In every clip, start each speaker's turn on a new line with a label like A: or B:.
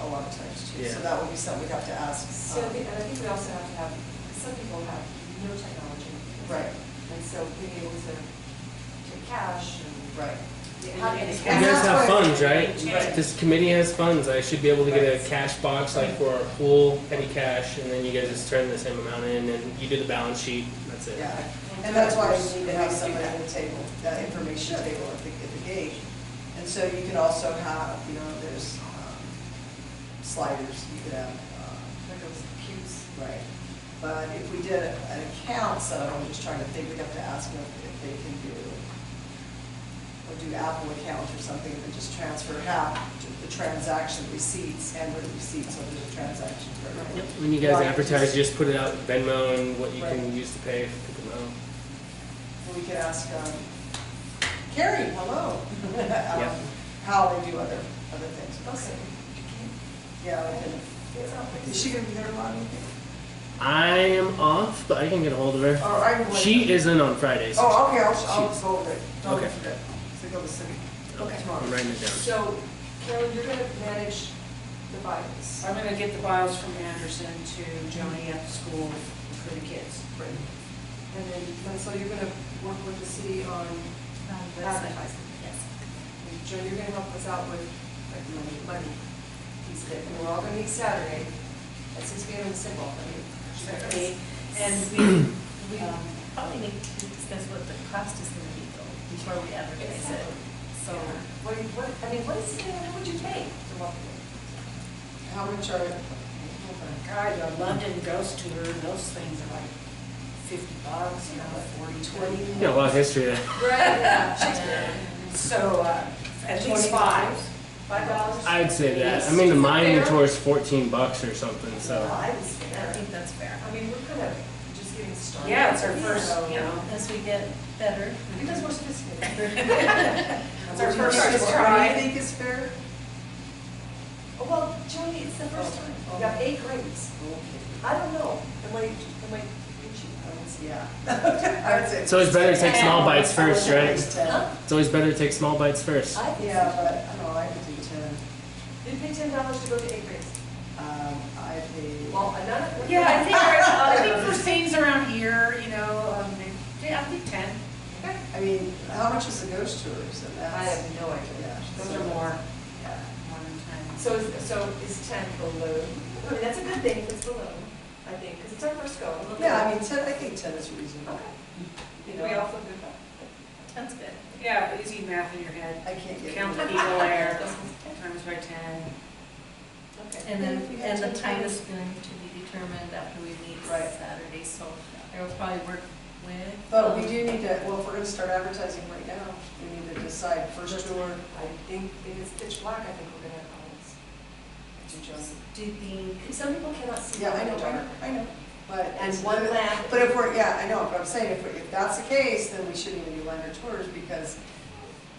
A: a lot of times too.
B: Yeah.
A: So that would be something we'd have to ask.
C: So,
A: um,
C: the- and I think we also have to have, some people have no technology.
A: Right.
C: And so being able to, to cash and.
A: Right.
C: How many
A: You
D: You
C: cash-
D: guys have
A: That's what-
D: funds, right?
A: Right.
D: This committee has funds, I should be able to get a cash box like for our pool, petty cash, and then you guys just turn the same amount in and you do the balance sheet, that's it.
A: Yeah, and that's why we need to have somebody at the table, that information table at the, at the gate. And so you can also have, you know, there's um, sliders, you could have, uh,
C: Like those cubes.
A: right. But if we did an account setup, I'm just trying to think, we'd have to ask them if they can do, or do Apple account or something, and then just transfer half to the transaction receipts and the receipts over the transaction. for-
D: Yep, When you guys
A: Right,
D: advertise,
A: just-
D: just put it out Venmo and what you
A: Right.
D: can use to pay for the amount.
A: Well, we could ask, um, Carrie, hello,
D: Yeah.
A: um, how they do other, other things.
C: Okay.
A: Yeah, we can, is she gonna be there long?
D: I am off, but I can get a hold of her.
A: Or Oh, I can.
D: She isn't on Fridays.
A: Oh, okay, I'll, I'll go over it. Don't
D: Okay.
A: forget. So go to the city.
C: Okay.
D: I'm
A: Tomorrow.
D: writing it down.
C: So, Carolyn, you're gonna manage the Bibles.
E: I'm gonna get the files from Anderson to Joni at the school for the kids.
C: And then, and so you're gonna work with the city on advertising. Yes. And Joe, you're gonna help us out with, like, money, money. He's good, and we're all gonna meet Saturday. That seems to be a simple, I mean.
F: Okay, And we, we um, probably need to discuss what the cost is gonna be though, before we advertise it. So,
C: What, do you- what, I mean, what is, uh, what would you pay to walk in?
A: How much are,
E: God, the London ghost tour, those things are like fifty bucks, you know, forty,
D: You
E: twenty.
D: got a lot of history there.
C: Right,
E: So, uh, at least five.
C: Five dollars?
D: I'd say that. I
C: Yes.
D: mean, the
C: Is it
D: Miami
C: fair?
D: tour is fourteen bucks or something,
C: Well,
D: so.
C: Oh, I was
F: I
C: scared.
F: think that's fair.
C: I mean, we're kind of just getting started.
E: Yeah, it's our first, you know,
F: As we get better.
C: Because we're sophisticated.
E: it's our
A: What do you
E: first
A: think is- What do
E: try.
A: you think is fair?
C: Oh, Well, Joni, it's the first time. We got eight grades. I don't know. Am I, am I preaching? I don't see.
A: Yeah. I would say.
D: It's always better to take small bites first, right?
A: Ten.
D: It's always better to take small bites first.
C: I think
A: Yeah,
C: so.
A: but, I don't know, I could do ten.
C: You pay ten dollars to go to eight grades.
A: Um, I paid.
C: Well, another.
E: Yeah, I think, I think for things around here, you know, um, yeah, I think ten.
C: Okay.
A: I mean, how much is the ghost tours and
C: I
A: that's,
C: have no idea.
A: yeah.
E: Those
A: so-
E: are more,
A: Yeah.
E: more than ten.
C: So is, so is ten below? I mean, that's a good thing if it's below, I think, because it's our first go.
A: Yeah, I mean, ten, I think ten is reasonable.
C: Okay.
A: You
C: We
A: know,
C: all feel good about
F: That's good.
E: Yeah, easy math in your head.
A: I can't get.
E: Count
A: it.
E: the eagle air times by ten.
C: it. Okay.
F: And then,
C: If you had
F: and the
C: ten
F: time
C: dollars-
F: is going to be determined after we meet
A: Right.
F: Saturday, so it'll probably work with.
A: But we do need to, well, if we're gonna start advertising right now, we need to decide first tour.
C: I think if it's pitch black, I think we're gonna have um, problems.
A: to just-
F: Do you think,
C: Some people cannot see.
A: Yeah, I
C: in the
A: know, I know,
C: dark.
A: I know, but. it's-
C: And one lamp.
A: But if we're, yeah, I know, but I'm saying if, we- if that's the case, then we shouldn't even do lender tours because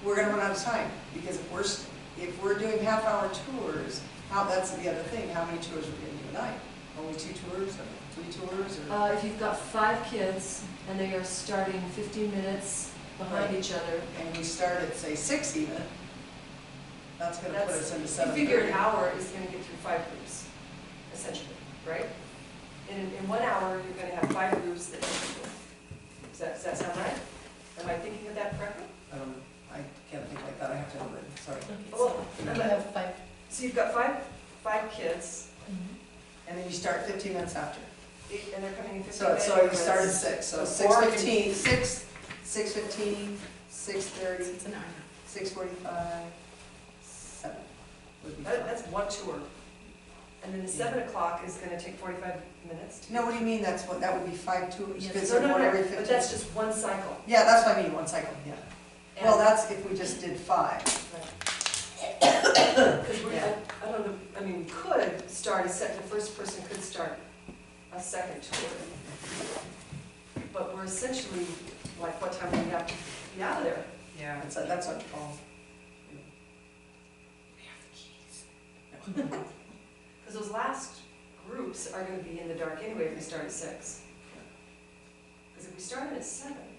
A: we're gonna run out of time. Because if we're, s- if we're doing half-hour tours, how, that's the other thing, how many tours are we gonna do a night? Only two tours or three tours or?
G: Uh, if you've got five kids and they are starting fifteen minutes behind
A: Right.
G: each other,
A: and we start at, say, six even, that's gonna put us into
C: That's, you
A: seven
C: figure
A: thirty.
C: an hour is gonna get through five groups, essentially, right? In, in one hour, you're gonna have five groups that you can do. Does that, does that sound right? Am I thinking of that correctly?
A: I don't, Um, I can't think like that, I have to have it, sorry.
F: okay, so
C: Well,
F: you Oh, have five.
C: so you've got five, five kids,
F: Mm-hmm.
A: And then you start fifteen minutes after.
C: eight- and they're coming in fifteen
A: So,
C: minutes.
A: so you start at six, so
C: So
A: six
C: four can-
A: fifteen, six, six fifteen, six thirty,
F: It's an hour.
A: six forty-five, seven would be
C: That,
A: fun.
C: that's one tour. And then the seven o'clock is gonna take forty-five minutes to.
A: No, what do you mean, that's what, that would be five tours,
F: Yes.
A: because
C: No,
A: they're
C: no,
A: one
C: no,
A: every
C: but
A: fifteen.
C: that's just one cycle.
A: Yeah, that's what I mean, one cycle, yeah. Well,
C: And-
A: that's if we just did five.
C: Because we're, I I don't know, I mean, we could start a second, the first person could start a second tour. But we're essentially, like, what time do we have to be out of there?
E: Yeah.
A: That's, that's what, oh,
C: Because those last groups are gonna be in the dark anyway if we start at six. Because if we started at seven,